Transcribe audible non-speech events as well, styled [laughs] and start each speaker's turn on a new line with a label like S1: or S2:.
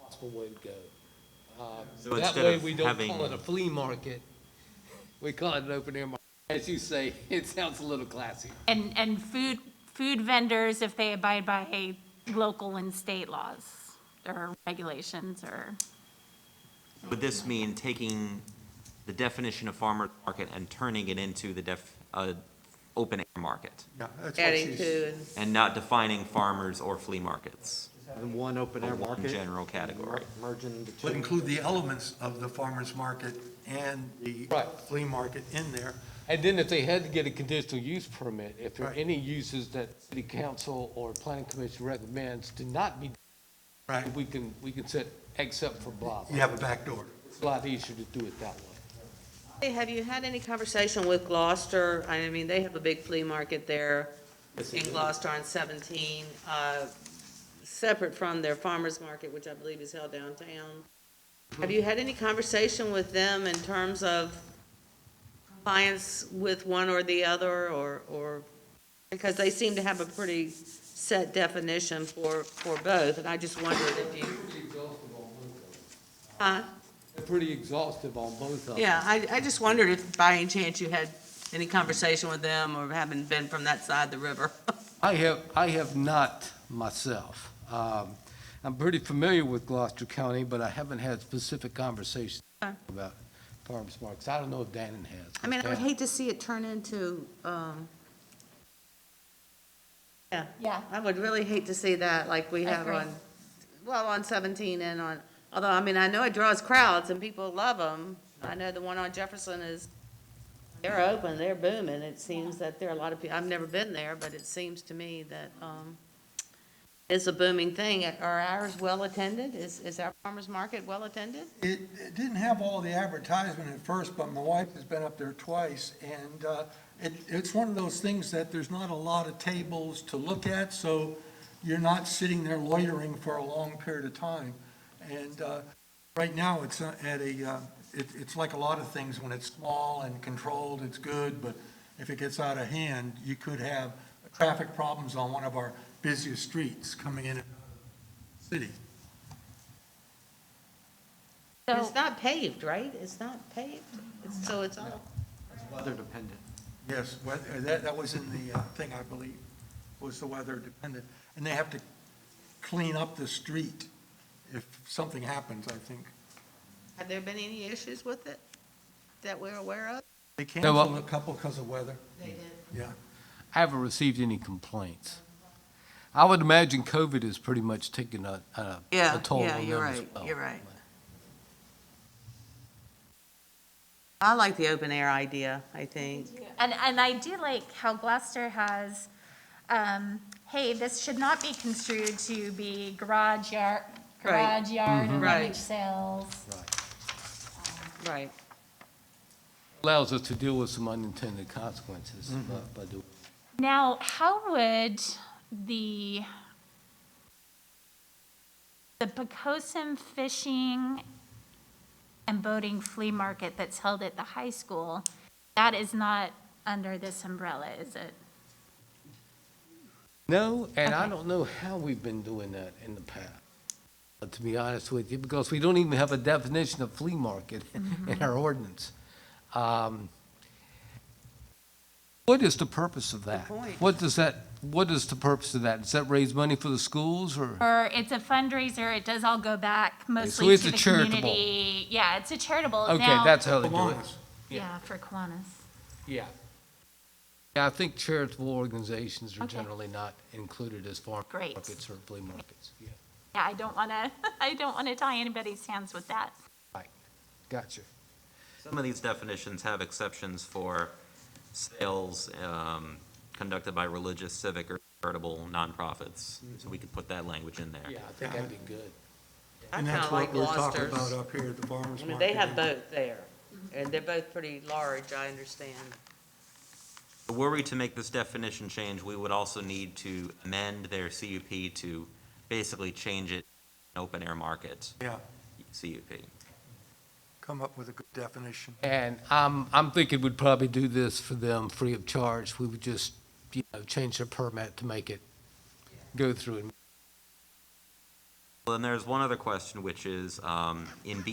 S1: possible way to go. Uh,
S2: So
S1: That
S2: instead
S1: way,
S2: of
S1: we don't
S2: having-
S1: call it a flea market. [laughs] We call it an open air market. As you say, [laughs] it sounds a little classy.
S3: And, and food, food vendors, if they abide by local and state laws or regulations or,
S2: Would this mean taking the definition of farmer's market and turning it into the def, uh, open air market?
S4: Yeah, that's what
S5: adding
S4: she's,
S5: to, and
S2: And not defining farmers or flea markets?
S6: in one open air
S2: Or one
S6: market.
S2: general
S6: and
S2: category.
S6: mer- Merging the two.
S4: would include the elements of the farmer's market and the
S1: Right.
S4: flea market in there.
S1: And then if they had to get a conditional use permit, if there are
S4: Right.
S1: any uses that city council or planning commission recommends to not be,
S4: Right,
S1: we can, we can set except for blah. blah.
S4: you have a back door.
S1: It's a lot easier to do it that way.
S5: Hey, have you had any conversation with Gloucester? I mean, they have a big flea market there in Gloucester on 17, uh, separate from their farmer's market, which I believe is held downtown. Have you had any conversation with them in terms of compliance with one or the other, or, or, because they seem to have a pretty set definition for, for both, and I just wondered if you, huh?
S1: They're Pretty exhaustive on both of them.
S5: Yeah, I, I just wondered if by any chance you had any conversation with them or having been from that side of the river.
S1: I have, I have not myself. Um, I'm pretty familiar with Gloucester County, but I haven't had specific conversations
S5: Okay.
S1: about farmers markets. I don't know if Dannon has.
S5: Uh. I mean, I would
S1: Dan-
S5: hate to see it turn into, um, yeah.
S3: Yeah.
S5: I would really hate to see that like we
S3: I
S5: have
S3: agree.
S5: on, well, on 17 and on, although, I mean, I know it draws crowds and people love them. I know the one on Jefferson is, they're open, they're booming. It seems that there are a lot of people, I've never been there, but it seems to me that, um, it's a booming thing. Are ours well-attended? Is, is our farmer's market well-attended?
S4: It, it didn't have all the advertisement at first, but my wife has been up there twice, and uh, it, it's one of those things that there's not a lot of tables to look at, so you're not sitting there loitering for a long period of time. And uh, right now, it's uh, at a, uh, it, it's like a lot of things, when it's small and controlled, it's good, but if it gets out of hand, you could have traffic problems on one of our busiest streets coming in and out of the city.
S3: so,
S5: It's not paved, right? It's not paved? It's- So it's all.
S6: Weather dependent.
S4: Yes, weather, that, that was in the uh, thing, I believe, was the weather dependent. And they have to clean up the street if something happens, I think.
S5: Have there been any issues with it that we're aware of?
S4: They
S1: well-
S4: canceled a couple because of weather,
S5: They did.
S4: yeah.
S1: I haven't received any complaints. I would imagine COVID has pretty much taken a, a a
S5: Yeah,
S1: toll
S5: yeah,
S1: on
S5: you're
S1: them as
S5: right,
S1: well.
S5: you're right. I like the open air idea, I think.
S3: and, and I do like how Gloucester has, um, hey, this should not be construed to be garage yard,
S5: Right. Mm-hmm.
S3: garage yard and
S5: Right.
S3: rummage sales.
S5: Right.
S1: Allows us to deal with some unintended consequences
S4: Mm-hmm.
S1: uh, by doing.
S3: Now, how would the, the Pocosin Fishing and Boating Flea Market that's held at the high school, that is not under this umbrella, is it?
S1: No, and I
S3: Okay.
S1: don't know how we've been doing that in the past, uh, to be honest with you, because we don't even have a definition of flea market [laughs] in our ordinance. Um, What is the purpose of that?
S5: point.
S1: What does that, what is the purpose of that? Does that raise money for the schools or?
S3: Or it's a fundraiser, it does all go back
S1: so
S3: mostly
S1: it's
S3: to
S1: a
S3: the
S1: charitable.
S3: community. Yeah, it's a charitable.
S1: Okay,
S3: Now-
S1: that's how they do it.
S4: Kiwanis,
S3: Yeah, for Kiwanis.
S1: Yeah. Yeah, I think charitable organizations are
S3: Okay.
S1: generally not included as farm
S3: Great.
S1: markets or flea markets. Yeah,
S3: Yeah, I don't want to, [laughs] I don't want to tie anybody's hands with that.
S1: Right, gotcha.
S2: Some of these definitions have exceptions for sales um, conducted by religious, civic, or charitable nonprofits. So we could put that language in there.
S1: Yeah, I think that'd be good.
S5: I
S4: And
S5: kind
S4: that's
S5: of like
S4: what we're talking
S5: Gloucester's.
S4: about uh, up here at the farmer's
S5: I
S4: market.
S5: mean, they have both there, and they're both pretty large, I understand.
S2: Were we to make this definition change, we would also need to amend their CUP to basically change it to an open air market
S4: Yeah,
S2: CUP.
S4: come up with a good definition.
S1: And I'm, I'm thinking we'd probably do this for them free of charge. We would just, you know, change their permit to make it go through and
S2: Well, then there's one other question, which is, um, in B